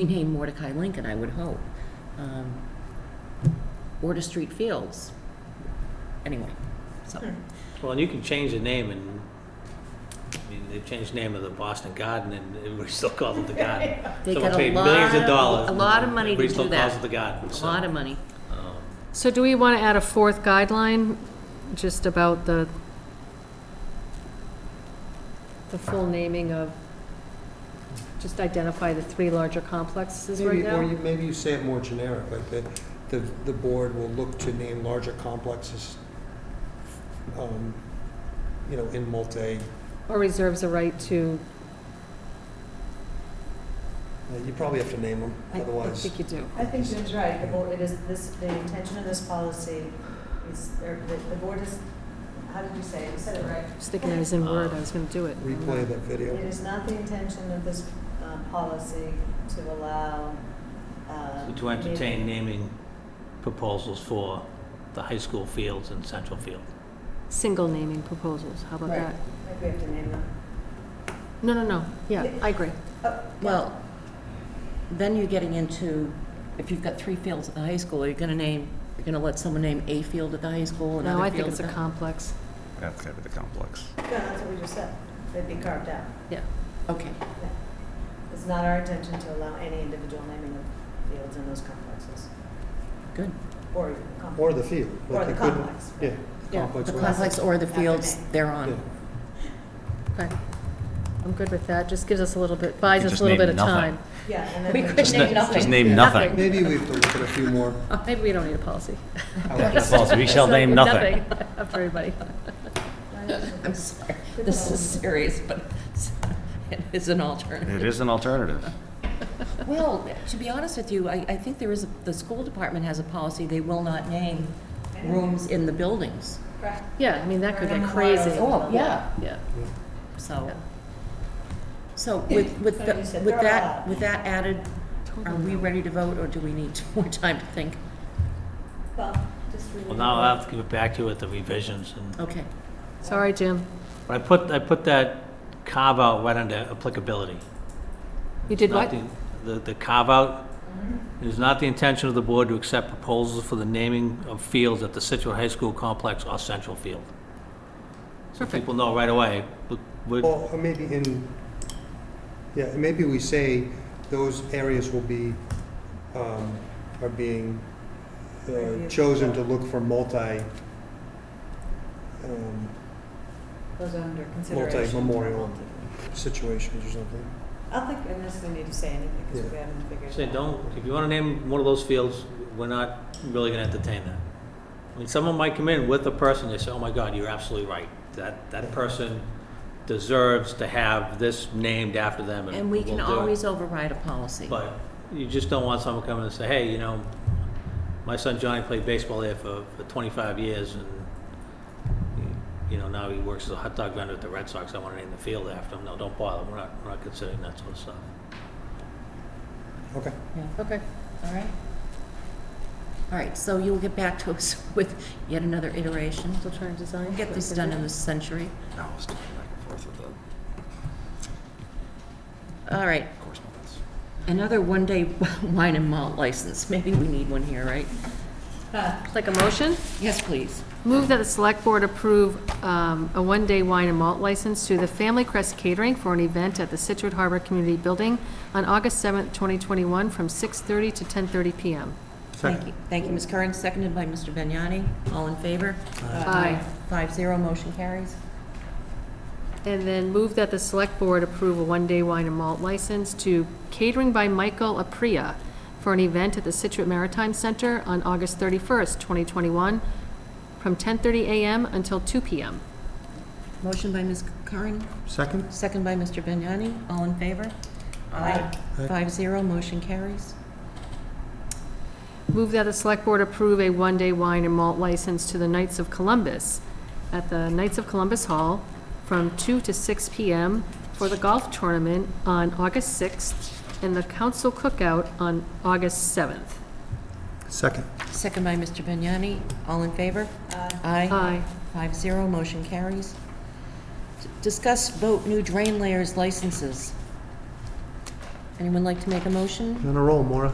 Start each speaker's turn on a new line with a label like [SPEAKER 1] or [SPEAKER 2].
[SPEAKER 1] rename Mordecai Lincoln, I would hope. Um, Or to Street Fields, anyway, so.
[SPEAKER 2] Well, and you can change the name and, I mean, they've changed the name of the Boston Garden and everybody still calls it the Garden.
[SPEAKER 1] They
[SPEAKER 2] Someone
[SPEAKER 1] got a
[SPEAKER 2] paid millions
[SPEAKER 1] lot
[SPEAKER 2] of
[SPEAKER 1] of-
[SPEAKER 2] dollars.
[SPEAKER 1] a
[SPEAKER 2] and
[SPEAKER 1] lot of money to
[SPEAKER 2] Everybody still
[SPEAKER 1] do
[SPEAKER 2] calls
[SPEAKER 1] that.
[SPEAKER 2] it the Garden,
[SPEAKER 1] A
[SPEAKER 2] so.
[SPEAKER 1] lot of money.
[SPEAKER 2] um,
[SPEAKER 3] So do we want to add a fourth guideline, just about the, the full naming of, just identify the three larger complexes right
[SPEAKER 4] Maybe, or
[SPEAKER 3] now?
[SPEAKER 4] you, maybe you say it more generic, like the, the, the board will look to name larger complexes, um, you know, in multi,
[SPEAKER 3] Or reserves the right to,
[SPEAKER 4] uh, you probably have to name them,
[SPEAKER 3] I I
[SPEAKER 4] otherwise.
[SPEAKER 3] think you do.
[SPEAKER 5] I think Jim's right. The board, it is, this, the intention of this policy is, or the, the board is, how did you say it? You said it right.
[SPEAKER 3] Just thinking I was in Word, I was going to do it.
[SPEAKER 4] Replay that
[SPEAKER 5] It
[SPEAKER 4] video.
[SPEAKER 5] is not the intention of this, um, policy to allow, uh.
[SPEAKER 2] so To entertain naming proposals for the high school fields and Central Field.
[SPEAKER 3] Single naming proposals, how about
[SPEAKER 5] Right.
[SPEAKER 3] that?
[SPEAKER 5] I think we have to name them.
[SPEAKER 3] No, no, no, yeah, I agree.
[SPEAKER 5] Oh,
[SPEAKER 1] Well, then you're getting into, if you've got three fields at the high school, are you gonna name, you're gonna let someone name a field at the high school,
[SPEAKER 3] No,
[SPEAKER 1] another
[SPEAKER 3] I think
[SPEAKER 1] field at
[SPEAKER 3] it's
[SPEAKER 1] the...
[SPEAKER 3] a complex,
[SPEAKER 6] That's gotta be the complex.
[SPEAKER 5] No, that's what we just said. They'd be carved out.
[SPEAKER 3] yeah.
[SPEAKER 1] Okay,
[SPEAKER 5] It's not our intention to allow any individual naming of fields in those complexes,
[SPEAKER 1] good.
[SPEAKER 5] or complex.
[SPEAKER 4] Or the field.
[SPEAKER 5] Or
[SPEAKER 4] like
[SPEAKER 5] the
[SPEAKER 4] you couldn't-
[SPEAKER 5] complex.
[SPEAKER 4] Yeah.
[SPEAKER 3] Yeah,
[SPEAKER 4] complex
[SPEAKER 1] The
[SPEAKER 4] was-
[SPEAKER 1] complex or the
[SPEAKER 5] After
[SPEAKER 1] fields
[SPEAKER 5] name.
[SPEAKER 1] they're
[SPEAKER 4] yeah.
[SPEAKER 1] on.
[SPEAKER 3] Okay. I'm good with that, just gives us a little bit, buys
[SPEAKER 6] You
[SPEAKER 3] us
[SPEAKER 6] just
[SPEAKER 3] a little
[SPEAKER 6] name
[SPEAKER 3] bit of
[SPEAKER 6] nothing.
[SPEAKER 3] time.
[SPEAKER 5] Yeah, and then.
[SPEAKER 1] We
[SPEAKER 5] we-
[SPEAKER 1] could Just name na- nothing.
[SPEAKER 6] Just name nothing.
[SPEAKER 4] Maybe we have to look at a few more.
[SPEAKER 3] Maybe we don't need a policy.
[SPEAKER 6] That's false. We shall name nothing.
[SPEAKER 3] Up for everybody.
[SPEAKER 1] I'm sorry, this is serious, but it's- it is an alternative.
[SPEAKER 6] It is an alternative.
[SPEAKER 1] Well, to be honest with you, I, I think there is, a- the school department has a policy, they will not name rooms in the buildings.
[SPEAKER 5] Correct.
[SPEAKER 3] Yeah, I mean, that could
[SPEAKER 5] Or
[SPEAKER 3] get
[SPEAKER 5] number
[SPEAKER 3] crazy.
[SPEAKER 5] one.
[SPEAKER 1] Oh, yeah.
[SPEAKER 3] Yeah.
[SPEAKER 1] So,
[SPEAKER 3] Yeah.
[SPEAKER 1] so with, with,
[SPEAKER 5] So
[SPEAKER 1] the-
[SPEAKER 5] you said
[SPEAKER 1] with
[SPEAKER 5] throw it
[SPEAKER 1] that,
[SPEAKER 5] out.
[SPEAKER 1] with that added, are we ready to vote, or do we need more time to think?
[SPEAKER 5] Well, just.
[SPEAKER 2] Well, now I'll have to give it back to you with the revisions and
[SPEAKER 1] Okay,
[SPEAKER 3] Sorry, Jim.
[SPEAKER 2] I put, I put that carve-out right under applicability.
[SPEAKER 3] You did
[SPEAKER 2] Not
[SPEAKER 3] what?
[SPEAKER 2] the- The, the carve-out, it is not the intention of the board to accept proposals for the naming of fields at the Situate High School complex or Central Field. So
[SPEAKER 3] Perfect.
[SPEAKER 2] people know right away, but we-
[SPEAKER 4] Or or maybe in, yeah, and maybe we say those areas will be, um, are being uh,
[SPEAKER 5] Reviewed.
[SPEAKER 4] chosen to look for multi, um,
[SPEAKER 5] Those are under consideration.
[SPEAKER 4] Multi-memorial. situations or something.
[SPEAKER 5] I don't think unless we need to say anything, because we haven't figured it out.
[SPEAKER 2] say, don't, if you wanna name one of those fields, we're not really gonna entertain that. I mean, someone might come in with a person, they say, oh my God, you're absolutely right. That, that person deserves to have this named after them and
[SPEAKER 1] and we can
[SPEAKER 2] we'll do it."
[SPEAKER 1] always override a policy.
[SPEAKER 2] But you just don't want someone coming and say, hey, you know, my son Johnny played baseball there for, for 25 years and, you know, now he works as a hot dog vendor at the Red Sox. I want to name the field after him. No, don't bother. We're not, we're not considering that sort of stuff.
[SPEAKER 4] Okay.
[SPEAKER 3] Okay.
[SPEAKER 1] All right? All right, so you'll get back to us with yet another iteration.
[SPEAKER 3] Still trying to design.
[SPEAKER 1] We'll get this done in this century.
[SPEAKER 6] No, I was going back and forth with the
[SPEAKER 1] All right,
[SPEAKER 6] correspondence.
[SPEAKER 1] another one-day wine and malt license. Maybe we need one here, right?
[SPEAKER 3] Like a motion?
[SPEAKER 1] Yes, please.
[SPEAKER 3] Move that the select board approve um, a one-day wine and malt license to the Family Crest Catering for an event at the Situate Harbor Community Building on August 7th, 2021, from 6:30 to 10:30 PM.
[SPEAKER 1] Thank you. Thank you, Ms. Curran, seconded by Mr. Vignani. All in favor?
[SPEAKER 3] Aye.
[SPEAKER 1] Five zero, motion carries.
[SPEAKER 3] And then move that the select board approve a one-day wine and malt license to Catering by Michael Apria for an event at the Situate Maritime Center on August 31st, 2021, from 10:30 a.m. until 2 p.m.
[SPEAKER 1] Motion by Ms. Curran,
[SPEAKER 4] Second?
[SPEAKER 1] second by Mr. Vignani. All in favor? Aye. Five zero, motion carries.
[SPEAKER 3] Move that the select board approve a one-day wine and malt license to the Knights of Columbus at the Knights of Columbus Hall from 2 to 6 p.m. for the golf tournament on August 6th and the council cookout on August 7th.
[SPEAKER 4] Second.
[SPEAKER 1] Second by Mr. Vignani. All in favor? Aye.
[SPEAKER 3] Aye.
[SPEAKER 1] Five zero, motion carries. D- Discuss vote new drain layers licenses.
[SPEAKER 7] Anyone like to make a motion?
[SPEAKER 1] On a roll, Maura.